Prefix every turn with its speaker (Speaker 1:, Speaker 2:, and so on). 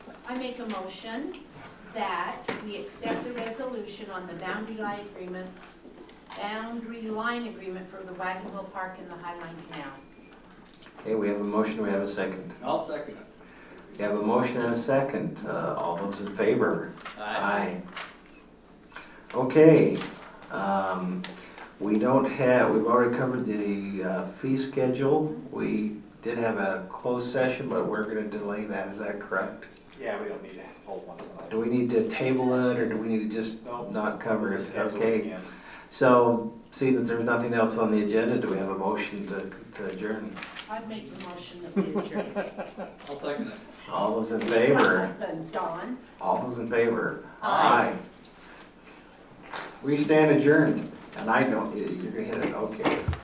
Speaker 1: I make a motion that we accept the resolution on the boundary line agreement, boundary line agreement for the Wagon Wheel Park and the Highline Canal.
Speaker 2: Okay, we have a motion, we have a second.
Speaker 3: I'll second it.
Speaker 2: We have a motion and a second. Uh, All those in favor? Okay, um, we don't have, we've already covered the uh, fee schedule. We did have a closed session, but we're going to delay that, is that correct?
Speaker 4: Yeah, we don't need to hold one tonight.
Speaker 2: Do we need to table it, or do we need to just
Speaker 4: No.
Speaker 2: not cover it?
Speaker 4: Just schedule it
Speaker 2: Okay,
Speaker 4: again.
Speaker 2: so seeing that there's nothing else on the agenda, do we have a motion to- to adjourn?
Speaker 1: I'd make the motion that we adjourn.
Speaker 3: I'll second it.
Speaker 2: All those in favor?
Speaker 1: Then Dawn.
Speaker 2: All those in favor?
Speaker 1: Aye.
Speaker 2: Aye. We stand adjourned, and I don't, you're gonna hit it, okay.